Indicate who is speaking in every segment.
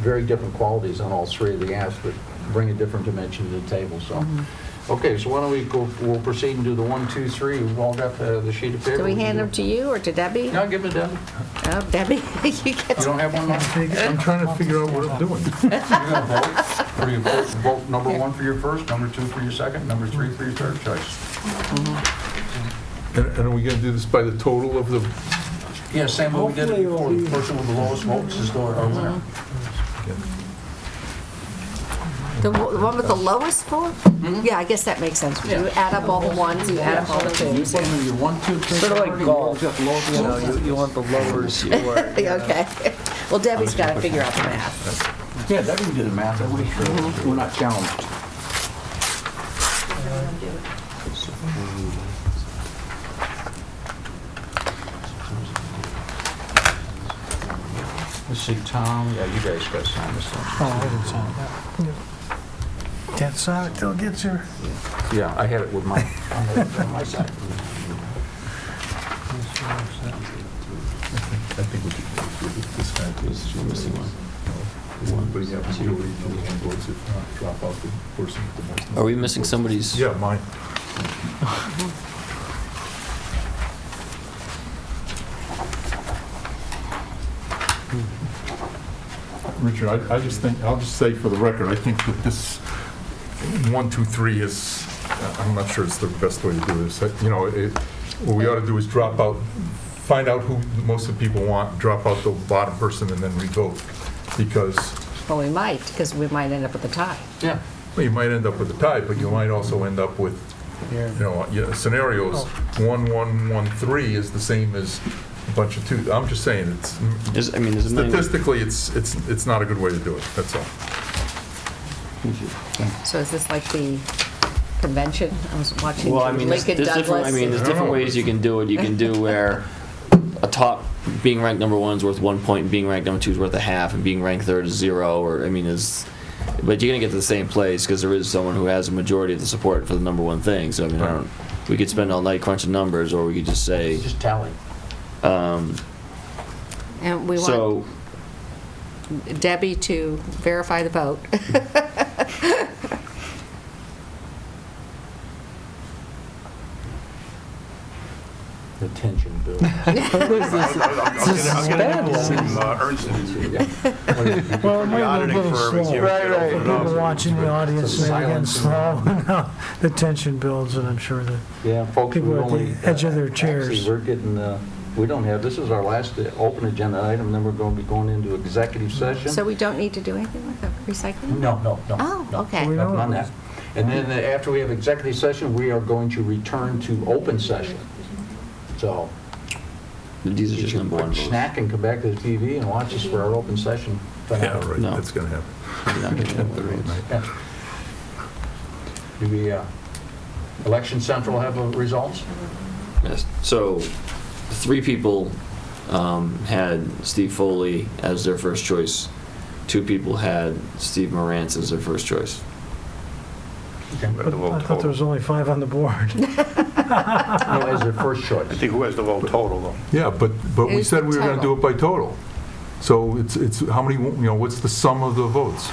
Speaker 1: very different qualities on all three of the apps, but bring a different dimension to the table, so.
Speaker 2: Mm-hmm.
Speaker 1: Okay, so why don't we go, we'll proceed and do the one, two, three. We've all got the the sheet of paper.
Speaker 2: Do we hand them to you or to Debbie?
Speaker 1: No, give it to them.
Speaker 2: Oh, Debbie, you get
Speaker 1: You
Speaker 2: to...
Speaker 1: don't have one?
Speaker 3: I'm
Speaker 1: Mark?
Speaker 3: taking- I'm trying to figure out what I'm doing.
Speaker 1: You're going to vote? Or you vote, vote number one for your first, number two for your second, number three for your third choice?
Speaker 3: And and are we going to do this by the total of the
Speaker 1: Yeah, same way we did it before. The person with the lowest votes is the our winner.
Speaker 2: Mm-hmm. The w- one with the lowest score?
Speaker 4: Mm-hmm.
Speaker 2: Yeah, I guess that makes sense. You add up all the ones, you add up all the
Speaker 1: You
Speaker 2: twos.
Speaker 1: put them in your one, two, three.
Speaker 5: Sort of like
Speaker 1: priority,
Speaker 5: golf.
Speaker 1: you got
Speaker 5: You
Speaker 1: low-
Speaker 5: know, you, you want the lowers you are. you know.
Speaker 2: Okay. Well, Debbie's got to figure out the math.
Speaker 1: Yeah, that we can do the math, that we,
Speaker 6: Mm-hmm.
Speaker 1: we're not challenged. Let's see, Tom, yeah, you guys got to sign this one.
Speaker 6: Oh, Can't sign it till it gets here.
Speaker 1: Yeah, I had it with my, I had it on my side.
Speaker 4: Are we missing somebody's?
Speaker 3: Yeah, mine. Richard, I, I just think, I'll just say for the record, I think that this one, two, three is, I'm not sure it's the best way to do this. Uh, You know, it, what we ought to do is drop out, find out who most of the people want, drop out the bottom person and then revote. Because
Speaker 2: Well, we might, because we might end up with a tie.
Speaker 1: Yeah.
Speaker 3: well, you might end up with a tie, but you might also end up with, you know, yeah, scenarios,
Speaker 6: Oh.
Speaker 3: one, one, one, three is the same as a bunch of two. I'm just saying, it's,
Speaker 4: Is, I mean, is a million?
Speaker 3: statistically, it's, it's, it's not a good way to do it, that's all.
Speaker 2: So is this like the convention? I was watching
Speaker 4: Well, I mean, there's
Speaker 2: Lincoln
Speaker 4: there's different, I mean,
Speaker 2: Douglas.
Speaker 4: there's different ways you can do it. You can do where a top being ranked number one is worth one point, and being ranked number two is worth a half, and being ranked third is zero, or, I mean, is, but you're gonna get to the same place, because there is someone who has a majority of the support for the number one thing, so I mean, I don't, we could spend all night crunching numbers, or we could just say,
Speaker 1: Just tally.
Speaker 2: And we want
Speaker 4: so,
Speaker 2: Debbie to verify the vote.
Speaker 1: The tension builds.
Speaker 6: Well, it might be a little slow.
Speaker 5: Right, right.
Speaker 6: People watching the audience,
Speaker 1: It's a
Speaker 6: maybe getting
Speaker 1: silence.
Speaker 6: slow. No, The tension builds, and I'm sure that
Speaker 1: Yeah, folks,
Speaker 6: People
Speaker 1: we're
Speaker 6: at the
Speaker 1: only... uh,
Speaker 6: edge of their
Speaker 1: actually,
Speaker 6: chairs.
Speaker 1: we're getting, uh, we don't have, this is our last uh, open agenda item, then we're going to be going into executive session.
Speaker 2: So we don't need to do anything with the recycling?
Speaker 1: No, no, no.
Speaker 2: Oh,
Speaker 1: no.
Speaker 2: okay.
Speaker 6: We
Speaker 1: Nothing
Speaker 6: don't-
Speaker 1: on that. And then uh, after we have executive session, we are going to return to open session. So
Speaker 4: these are
Speaker 1: get
Speaker 4: just
Speaker 1: your
Speaker 4: number one
Speaker 1: quick
Speaker 4: votes.
Speaker 1: snack and come back to the TV and watch us for our open session.
Speaker 3: Yeah,
Speaker 1: finale.
Speaker 3: right,
Speaker 4: No.
Speaker 3: that's gonna happen.
Speaker 4: You're not getting number one votes.
Speaker 1: Yeah. Do we, uh, Election Central have uh, results?
Speaker 4: Yes. So, three people um, had Steve Foley as their first choice. Two people had Steve Morantz as their first choice.
Speaker 6: but I thought there was only five on the board.
Speaker 1: No, as their first choice.
Speaker 7: I think who has the vote total, though?
Speaker 3: Yeah, but, but we
Speaker 2: It's
Speaker 3: said we were gonna do
Speaker 2: total.
Speaker 3: it by total. So it's, it's, how many, you know, what's the sum of the votes?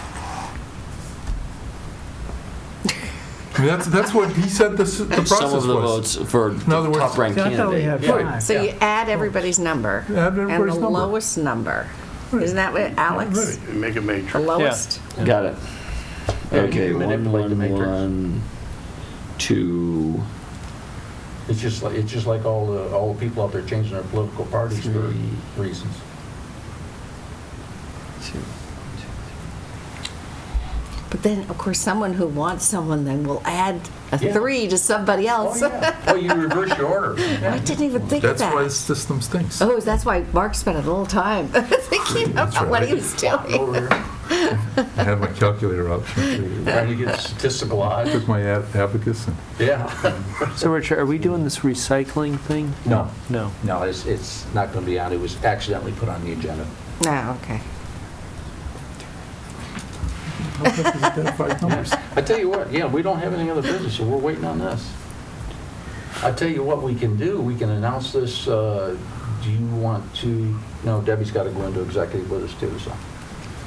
Speaker 3: I mean, that's, that's what, he said the, s- the process was.
Speaker 4: Some of the votes for
Speaker 3: other
Speaker 4: the
Speaker 3: words-
Speaker 4: top ranked
Speaker 6: See, I thought we had
Speaker 4: candidate.
Speaker 6: five.
Speaker 2: So you add everybody's number.
Speaker 3: Add
Speaker 2: And
Speaker 3: everybody's
Speaker 2: the
Speaker 3: number.
Speaker 2: lowest number. Isn't that what, Alex?
Speaker 7: Make a
Speaker 2: The
Speaker 7: matrix.
Speaker 2: lowest?
Speaker 4: Got it.
Speaker 1: Yeah, you
Speaker 4: Okay,
Speaker 1: can
Speaker 4: one,
Speaker 1: manipulate the
Speaker 4: one,
Speaker 1: matrix.
Speaker 4: one, two.
Speaker 1: It's just like, it's just like all the, all the people out there changing their political parties for reasons.
Speaker 4: two.
Speaker 2: But then, of course, someone who wants someone then will add a
Speaker 1: Yeah.
Speaker 2: three to somebody
Speaker 1: Oh,
Speaker 2: else.
Speaker 1: yeah. Well, you reverse your order.
Speaker 2: I didn't even think of
Speaker 3: That's why
Speaker 2: that.
Speaker 3: the system stinks.
Speaker 2: Oh, that's why Mark spent a little time thinking
Speaker 3: That's
Speaker 2: about what
Speaker 3: right.
Speaker 2: he was doing.
Speaker 1: Over here.
Speaker 3: I had my calculator out,
Speaker 1: Trying to get statistical odds.
Speaker 3: took my ab- abacus, and
Speaker 1: Yeah.
Speaker 5: So, Richard, are we doing this recycling thing?
Speaker 1: No,
Speaker 5: No.
Speaker 1: no, it's, it's not going to be on. It was accidentally put on the agenda.
Speaker 2: No, Oh, okay.
Speaker 3: identified
Speaker 5: Oh,
Speaker 3: numbers.
Speaker 1: I tell you what, yeah, we don't have any other business, so we're waiting on this. I tell you what we can do, we can announce this, uh, do you want to, no, Debbie's got to go into executive with us too, so.